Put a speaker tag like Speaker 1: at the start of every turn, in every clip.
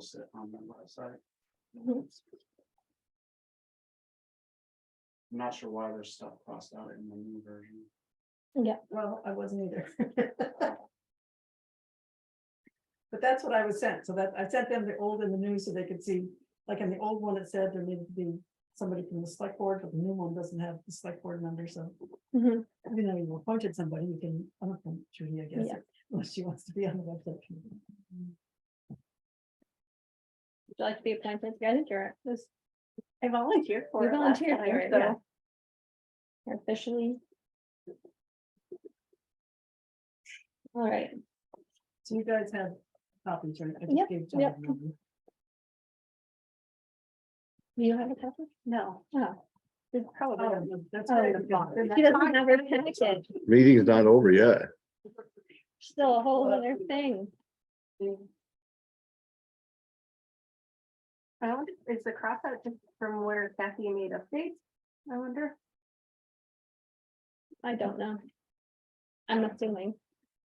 Speaker 1: sit on the left side.
Speaker 2: Mhm.
Speaker 1: I'm not sure why there's stuff crossed out in the new version.
Speaker 2: Yeah, well, I wasn't either.
Speaker 3: But that's what I was sent, so that, I sent them the old and the new, so they could see, like in the old one, it said there needed to be somebody from the select board, but the new one doesn't have the select board member, so.
Speaker 4: Mm-hmm.
Speaker 2: Mhm.
Speaker 3: You know, you appointed somebody, you can, I don't know, Judy, I guess,
Speaker 2: Yeah.
Speaker 3: unless she wants to be on the website. committee.
Speaker 2: Would you like to be appointed guidance director? This
Speaker 4: I volunteered for
Speaker 2: You
Speaker 4: it last
Speaker 2: volunteered for
Speaker 4: time,
Speaker 2: it, yeah.
Speaker 4: so
Speaker 2: you're officially. All right,
Speaker 3: So you guys have copies, right? I just
Speaker 2: Yep,
Speaker 3: gave John
Speaker 2: yep.
Speaker 3: one.
Speaker 2: do you have a copy?
Speaker 4: no.
Speaker 2: Oh.
Speaker 4: It's probably.
Speaker 3: Oh, that's
Speaker 2: Oh,
Speaker 3: right,
Speaker 4: the
Speaker 3: because-
Speaker 4: box.
Speaker 2: He doesn't have her packet,
Speaker 5: Meeting's not over yet.
Speaker 2: still a whole other thing.
Speaker 4: I wonder, is the cross out just from where Kathy made updates? I wonder.
Speaker 2: I don't know. I'm assuming.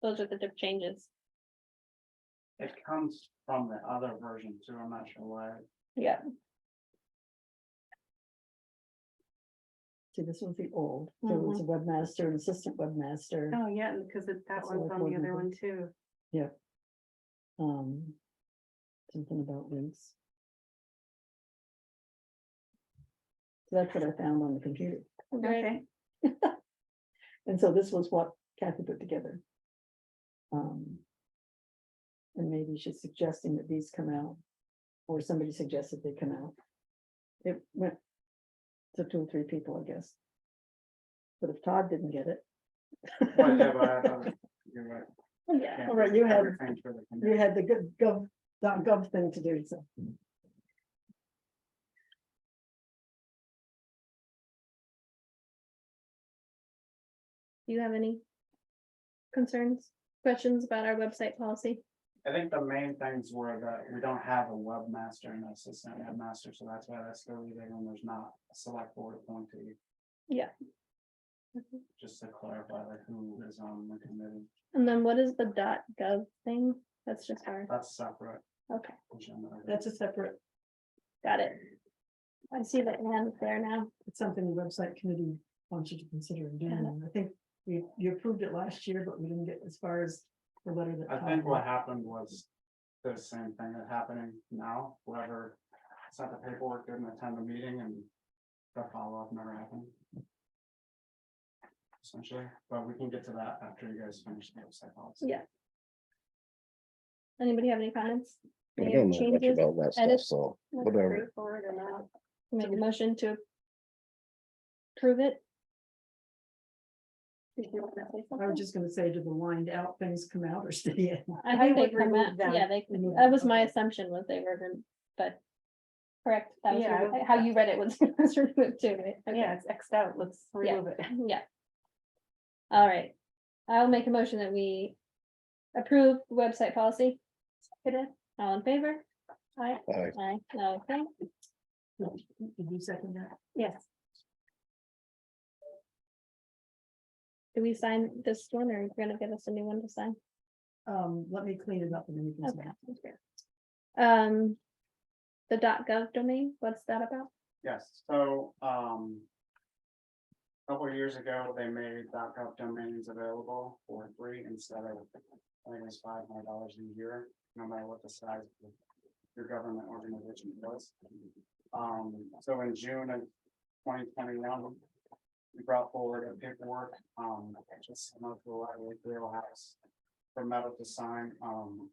Speaker 2: Those are the diff changes.
Speaker 1: It comes from the other version too, I'm not sure why.
Speaker 2: Yeah.
Speaker 3: See, this was the old, there was a webmaster, an assistant webmaster,
Speaker 4: Oh, yeah, because it's that
Speaker 3: That's
Speaker 4: one's
Speaker 3: the
Speaker 4: on the
Speaker 3: recording.
Speaker 4: other one too.
Speaker 3: um. Something about links. So That's what I found on the computer.
Speaker 2: Right.
Speaker 4: Okay,
Speaker 3: And so this was what Kathy put together. Um. And maybe she's suggesting that these come out. Or somebody suggested they come out. It went. To two or three people, I guess. But if Todd didn't get it.
Speaker 1: Whatever, I thought it- you're right.
Speaker 2: Yeah.
Speaker 3: All right, you have-
Speaker 1: Everything's for the
Speaker 3: You had the good gov, dot gov thing to do, so.
Speaker 2: Do you have any? Concerns, questions about our website policy?
Speaker 1: I think the main things were that we don't have a webmaster and assistant webmaster, so that's why that's still leaving and there's not a select board appointee.
Speaker 2: Yeah.
Speaker 1: Just to clarify like who is on the committee,
Speaker 2: And then what is the dot gov thing? That's just our,
Speaker 1: that's separate.
Speaker 2: Okay.
Speaker 1: agenda item.
Speaker 3: That's a separate,
Speaker 2: got it. I see the hand there now.
Speaker 3: it's something the website committee wants you to consider doing.
Speaker 2: Got it.
Speaker 3: and I think we, you approved it last year, but we didn't get as far as the letter that.
Speaker 1: I
Speaker 3: Todd
Speaker 1: think
Speaker 3: wrote.
Speaker 1: what happened was the same thing that happening now, whoever sent the paperwork didn't attend the meeting and the follow-up never happened. Essentially, but we can get to that after you guys finish the website policy.
Speaker 2: Yeah. Anybody have any comments?
Speaker 5: I
Speaker 2: Any
Speaker 5: don't know much
Speaker 2: changes?
Speaker 5: about that stuff,
Speaker 2: edits?
Speaker 5: so
Speaker 2: Let's
Speaker 5: whatever.
Speaker 4: straightforward or not.
Speaker 2: Make a motion to. Prove it.
Speaker 4: Did you want to say
Speaker 3: I was
Speaker 4: something?
Speaker 3: just gonna say, do the lined out things come out or stay in?
Speaker 2: I
Speaker 4: I
Speaker 2: think they
Speaker 4: would
Speaker 2: come
Speaker 4: remove
Speaker 2: out,
Speaker 4: them.
Speaker 2: yeah, they,
Speaker 3: Remove
Speaker 2: that
Speaker 3: them,
Speaker 2: was my
Speaker 3: okay.
Speaker 2: assumption was they were, rem- but. Correct, that was
Speaker 4: Yeah, I
Speaker 2: your-
Speaker 4: would-
Speaker 2: how you read it was was removed too, right? Okay.
Speaker 4: Yeah, it's Xed out, let's
Speaker 2: Yeah.
Speaker 4: remove it.
Speaker 2: Yeah. All right, I'll make a motion that we approve the website policy. All in favor? Aye.
Speaker 5: Aye.
Speaker 2: Aye, okay,
Speaker 3: Did you second that?
Speaker 4: Yes.
Speaker 2: do we sign this one or are you gonna give us a new one to sign?
Speaker 3: Um, let me clean it up and then you can.
Speaker 2: Okay.
Speaker 3: sign.
Speaker 2: sounds good. Um. The gov domain, what's that about?
Speaker 1: Yes, so, um. a Couple of years ago, they made .gov domains available for free instead of, I think it was five hundred dollars a year, no matter what the size of your government organization was. Um, so in June of twenty twenty-one, we brought forward a paperwork, um, just similar to the library Grill House for Metal to sign, um,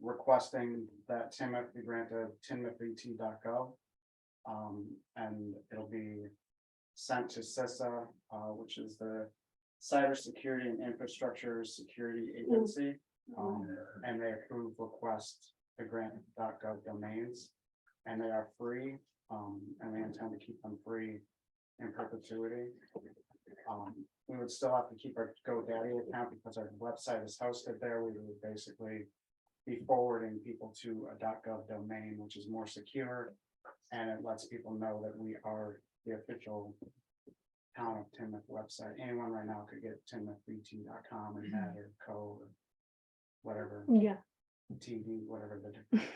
Speaker 1: requesting that Timothy be granted timothyt.gov. Um, and it'll be sent to CISA, uh, which is the Cybersecurity and Infrastructure Security Agency. Um, and they approve requests to grant .gov domains. And they are free, um, and we intend to keep them free in perpetuity. Um, we would still have to keep our GoDaddy account because our website is hosted there. We would basically be forwarding people to a .gov domain, which is more secure. And it lets people know that we are the official town of Timoth website. Anyone right now could get timothbt.com and that or co. or Whatever,
Speaker 2: Yeah.
Speaker 1: TV, whatever the different